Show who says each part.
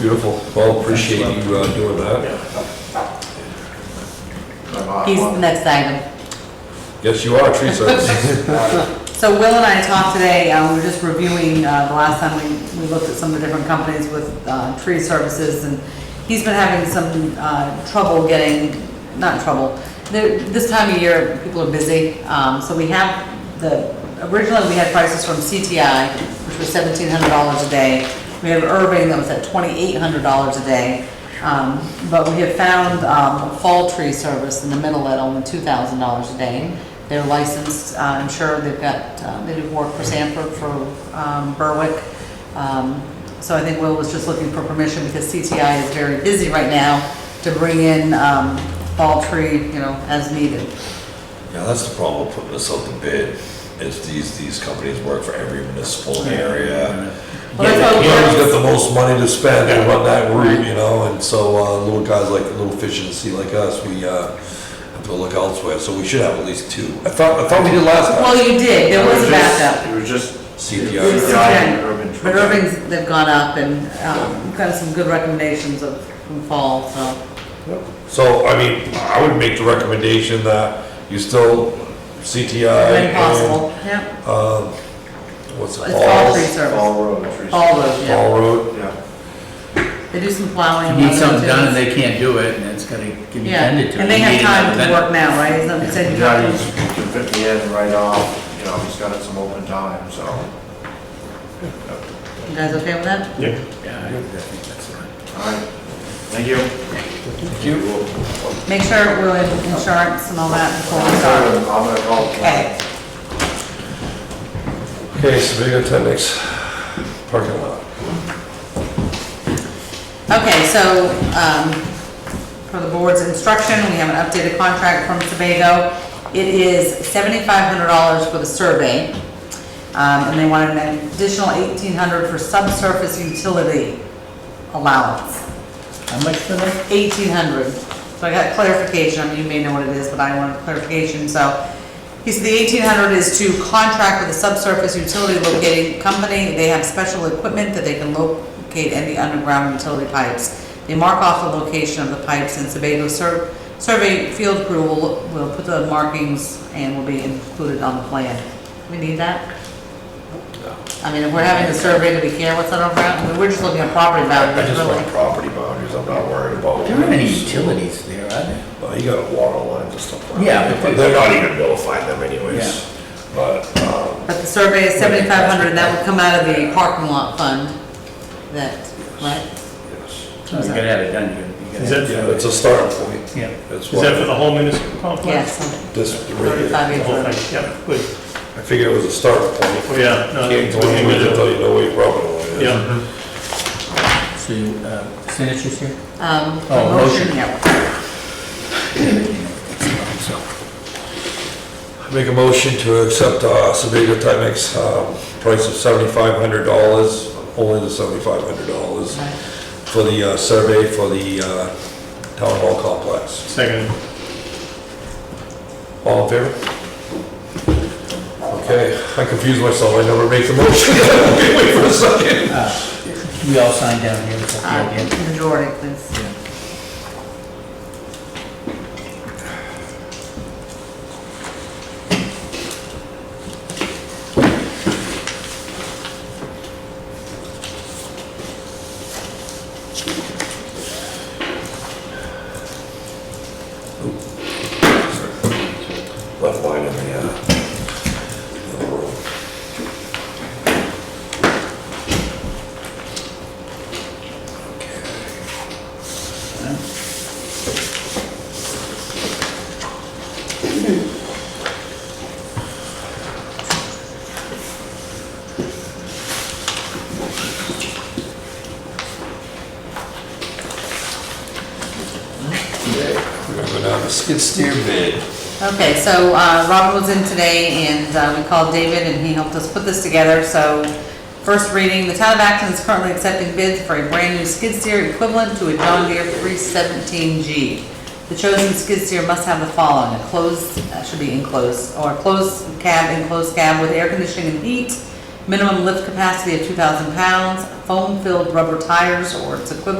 Speaker 1: Beautiful. Well, appreciate you uh, doing that.
Speaker 2: I'm off
Speaker 3: He's the
Speaker 2: on-
Speaker 3: next item.
Speaker 1: Yes, you are, tree service.
Speaker 3: So Will and I talked today, uh, we were just reviewing, uh, the last time we, we looked at some of the different companies with, uh, tree services, and he's been having some, uh, trouble getting, not trouble, the, this time of year, people are busy, um, so we have the, originally we had prices from CTI, which was seventeen hundred dollars a day, we have Irving that was at twenty-eight hundred dollars a day, um, but we have found, um, a fall tree service in the middle at only two thousand dollars a day. They're licensed, uh, I'm sure they've got, uh, they do work for Sanford, for um, Berwick. Um, So I think Will was just looking for permission because CTI is very busy right now to bring in um, fall tree, you know, as needed.
Speaker 4: Yeah, that's the problem with putting this out to bid, is these, these companies work for every municipal area.
Speaker 3: Well, that's
Speaker 4: You
Speaker 3: what
Speaker 4: always
Speaker 3: we're-
Speaker 4: got the most money to spend and run that route, you know, and so, uh, little guys like, little fish in the sea like us, we, uh, have to look elsewhere, so we should have at least two. I thought, I thought we did last time.
Speaker 3: Well, you did, there was a backup.
Speaker 2: It was just.
Speaker 4: CPI.
Speaker 2: it was
Speaker 3: It's
Speaker 2: CPI
Speaker 3: okay.
Speaker 2: and urban
Speaker 3: But
Speaker 2: tree.
Speaker 3: Irving's, they've gone up and um, we've got some good recommendations of, from fall, so.
Speaker 1: So, I mean, I would make the recommendation that you still CTI.
Speaker 3: When
Speaker 1: and,
Speaker 3: possible, yeah.
Speaker 4: uh,
Speaker 1: um, What's it
Speaker 3: It's fall
Speaker 1: called?
Speaker 3: tree service,
Speaker 2: Fall road trees.
Speaker 3: fall road, yeah.
Speaker 1: Fall Road.
Speaker 2: Yeah.
Speaker 3: They do some plowing.
Speaker 5: You need something done
Speaker 3: and
Speaker 5: and they can't do it, and it's gonna get
Speaker 3: Yeah,
Speaker 5: intended to.
Speaker 3: and they
Speaker 5: You
Speaker 3: have
Speaker 5: need
Speaker 3: time
Speaker 5: another
Speaker 3: to work
Speaker 5: vendor.
Speaker 3: now, right? Is that what you said? You
Speaker 2: Now
Speaker 3: got-
Speaker 2: he's, he can fit me in right off, you know, he's got some open time, so.
Speaker 3: You guys okay with that?
Speaker 5: Yeah, I think that's right.
Speaker 2: All right, thank you.
Speaker 3: Make sure we're in insurance and all that before we
Speaker 2: I'm
Speaker 3: start.
Speaker 2: gonna I'm gonna call.
Speaker 3: Okay,
Speaker 1: Okay, Sabino Tenix, parking lot.
Speaker 3: okay, so, um, for the board's instruction, we have an updated contract from Sebago. It is seventy-five hundred dollars for the survey, um, and they want an additional eighteen hundred for subsurface utility allowance.
Speaker 5: How much for that?
Speaker 3: eighteen hundred. So I got clarification, I mean, you may know what it is, but I wanted clarification, so. He said the eighteen hundred is to contract with a subsurface utility locating company. They have special equipment that they can locate any underground utility pipes. They mark off the location of the pipes and Sebago sur- survey field crew will, will put the markings and will be included on the plan. We need that? I mean, if we're having a survey, do we care what's underground? I mean, we're just looking at property
Speaker 4: I
Speaker 3: values,
Speaker 4: just
Speaker 3: really.
Speaker 4: want property boundaries, I'm not worried about.
Speaker 5: There aren't any utilities there, are there?
Speaker 4: Well, you got water lines and stuff like that.
Speaker 5: Yeah, but
Speaker 4: But they're not even notifying them anyways, but, um,
Speaker 3: But the survey is seventy-five hundred, and that would come out of the parking lot fund, that, right?
Speaker 4: yes.
Speaker 5: You gotta have it done here. You gotta
Speaker 6: Is
Speaker 5: have it
Speaker 6: that-
Speaker 4: Yeah, it's a starting point.
Speaker 5: done. Yeah.
Speaker 4: That's
Speaker 6: Is that for
Speaker 4: why
Speaker 6: the whole municipal complex?
Speaker 3: Yes,
Speaker 4: this right here.
Speaker 3: thirty-five
Speaker 6: The whole
Speaker 3: acre.
Speaker 6: thing, yeah, good.
Speaker 1: I figured it was a start point.
Speaker 6: Oh, yeah. no,
Speaker 1: Can't go
Speaker 6: we can
Speaker 1: anywhere
Speaker 6: get it.
Speaker 1: until you know where your property line is.
Speaker 6: Yeah,
Speaker 5: So, uh, signatures here?
Speaker 3: Um,
Speaker 5: Oh,
Speaker 3: motion,
Speaker 5: motion.
Speaker 3: yeah.
Speaker 5: So,
Speaker 1: I Make a motion to accept uh, Sebago Timex, um, price of seventy-five hundred dollars, only the seventy-five hundred dollars for the uh, survey for the uh, town hall complex.
Speaker 6: second.
Speaker 1: All in favor? Okay, I confused myself, I never make the motion. Wait for a second.
Speaker 5: We all sign down here, is that the idea?
Speaker 3: Uh, Majority, please.
Speaker 4: Left line in the, uh, in the room.
Speaker 1: We're gonna go down to skid steer bid.
Speaker 3: Okay, so, uh, Robin was in today, and, uh, we called David, and he helped us put this together, so. First reading, the town of Acton is currently accepting bids for a brand new skid steer equivalent to a John Deere three seventeen G. The chosen skid steer must have the following, a closed, uh, should be enclosed, or a closed cab, enclosed cab with air conditioning and heat, minimum lift capacity of 2,000 pounds, foam-filled rubber tires or its equivalent